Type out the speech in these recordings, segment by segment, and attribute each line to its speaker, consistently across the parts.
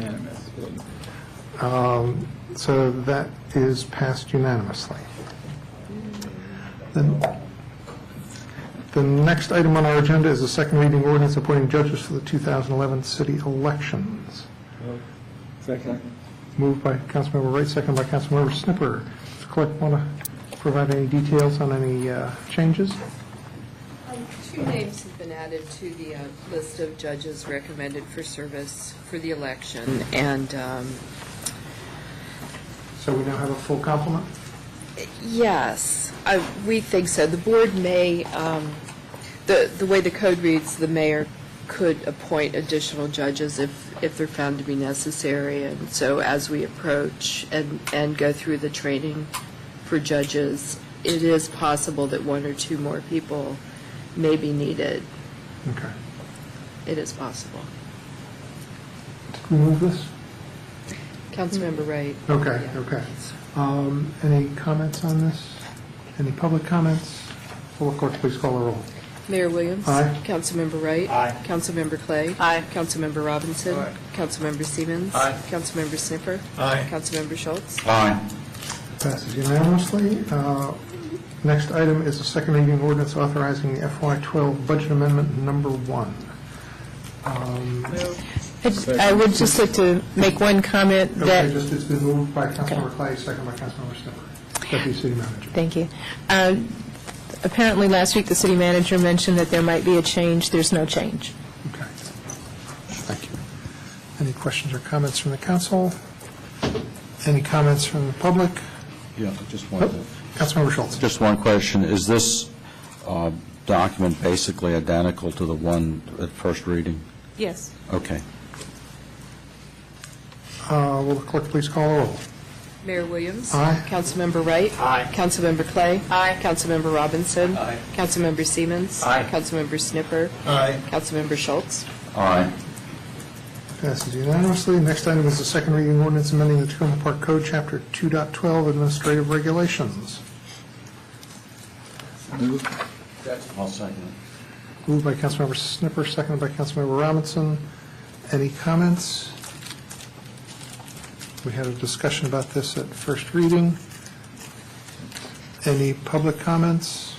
Speaker 1: Unanimous.
Speaker 2: Um, So that is passed unanimously. The the next item on our agenda is the second reading ordinance appointing judges for the 2011 city elections.
Speaker 1: Second.
Speaker 2: Moved by Councilmember Wright, second by Councilmember Snipper. Does the clerk want to provide any details on any uh, changes?
Speaker 3: Um, Two names have been added to the uh, list of judges recommended for service for the election, and, um,
Speaker 2: So we now have a full complement?
Speaker 3: yes, I- we think so. The board may, um, the the way the code reads, the mayor could appoint additional judges if if they're found to be necessary, and so as we approach and and go through the training for judges, it is possible that one or two more people may be needed.
Speaker 2: Okay.
Speaker 3: It is possible.
Speaker 2: Did we move this?
Speaker 3: Councilmember Wright.
Speaker 2: Okay,
Speaker 3: Yeah.
Speaker 2: okay. Um, Any comments on this? Any public comments? Will the clerk please call the roll?
Speaker 3: Mayor Williams.
Speaker 2: Aye.
Speaker 3: Councilmember Wright.
Speaker 1: Aye.
Speaker 3: Councilmember Clay. Aye. Councilmember Robinson. Aye. Councilmember Siemens.
Speaker 1: Aye.
Speaker 3: Councilmember Sniffer.
Speaker 1: Aye.
Speaker 3: Councilmember Schultz.
Speaker 1: Aye.
Speaker 2: Passes unanimously. Uh, Next item is a second reading ordinance authorizing the FY12 budget amendment number one. Um,
Speaker 4: I j- I would just like to make one comment
Speaker 2: Okay,
Speaker 4: that,
Speaker 2: just, it's been moved by Councilmember Clay, second by Councilmember Snipper. Deputy City Manager.
Speaker 4: thank you. Uh, Apparently, last week, the city manager mentioned that there might be a change. There's no change.
Speaker 2: Okay. Thank you. Any questions or comments from the council? Any comments from the public?
Speaker 5: Yeah, just one,
Speaker 2: Nope. Councilmember Schultz.
Speaker 5: just one question. Is this uh, document basically identical to the one at first reading?
Speaker 4: Yes.
Speaker 5: Okay.
Speaker 2: Uh, Will the clerk please call the roll?
Speaker 3: Mayor Williams.
Speaker 2: Aye.
Speaker 3: Councilmember Wright. Aye. Councilmember Clay. Aye. Councilmember Robinson. Aye. Councilmember Siemens. Aye. Councilmember Sniffer.
Speaker 1: Aye.
Speaker 3: Councilmember Schultz.
Speaker 5: Aye.
Speaker 2: Passes unanimously. Next item is the second reading ordinance amending the Tacoma Park Code, Chapter 2.12, Administrative Regulations.
Speaker 5: I'll second
Speaker 2: Moved by Councilmember Snipper, seconded by Councilmember Robinson. Any comments? We had a discussion about this at first reading. Any public comments?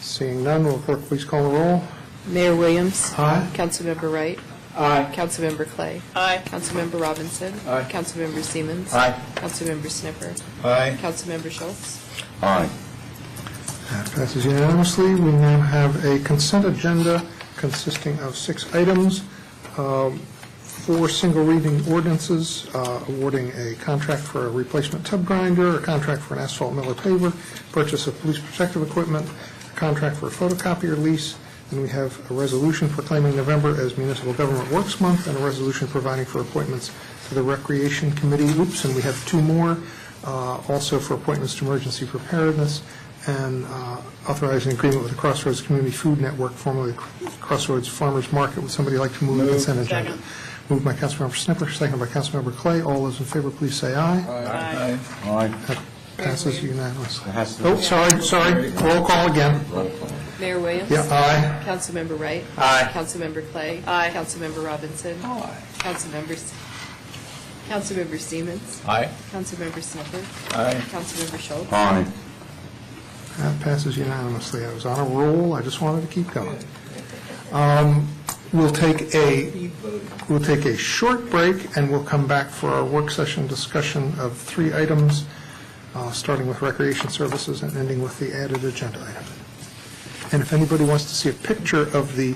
Speaker 2: Seeing none, will the clerk please call the roll?
Speaker 3: Mayor Williams.
Speaker 2: Aye.
Speaker 3: Councilmember Wright. Aye. Councilmember Clay. Aye. Councilmember Robinson. Aye. Councilmember Siemens. Aye. Councilmember Sniffer.
Speaker 1: Aye.
Speaker 3: Councilmember Schultz.
Speaker 5: Aye.
Speaker 2: That passes unanimously. We now have a consent agenda consisting of six items, um, four single reading ordinances, uh, awarding a contract for a replacement tub grinder, a contract for an asphalt miller paver, purchase of police protective equipment, a contract for a photocopier lease, and we have a resolution proclaiming November as Municipal Government Works Month, and a resolution providing for appointments to the Recreation Committee. Oops, and we have two more, uh, also for appointments to emergency preparedness, and uh, authorizing agreement with the Crossroads Community Food Network, formerly Crossroads Farmers Market. Would somebody like to move the consent agenda? Moved by Councilmember Snipper, second by Councilmember Clay. All those in favor, please say aye.
Speaker 1: Aye.
Speaker 5: Aye.
Speaker 2: Passes unanimously.
Speaker 5: It has to be-
Speaker 2: Oh, sorry, sorry. Roll call again.
Speaker 3: Mayor Williams.
Speaker 2: Yeah, aye.
Speaker 3: Councilmember Wright. Aye. Councilmember Clay. Aye. Councilmember Robinson. Aye. Councilmember, S- Councilmember Siemens.
Speaker 1: Aye.
Speaker 3: Councilmember Sniffer.
Speaker 1: Aye.
Speaker 3: Councilmember Schultz.
Speaker 5: Aye.
Speaker 2: That passes unanimously. I was on a roll, I just wanted to keep going. Um, We'll take a, we'll take a short break, and we'll come back for our work session discussion of three items, uh, starting with recreation services and ending with the added agenda item. And if anybody wants to see a picture of the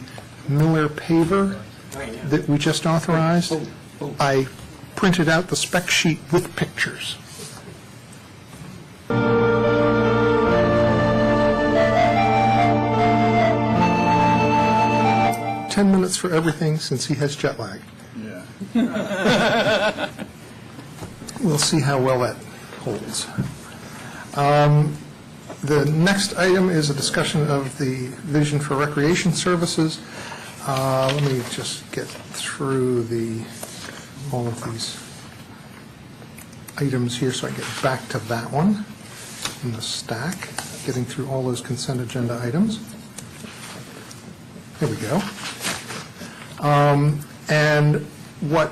Speaker 2: Miller paver that we just authorized, I printed out the spec sheet with pictures. Ten minutes for everything since he has jet lag.
Speaker 1: Yeah.
Speaker 2: We'll see how well that holds. Um, The next item is a discussion of the vision for recreation services. Uh, Let me just get through the, all of these items here so I get back to that one in the stack, getting through all those consent agenda items. There we go. Um, And what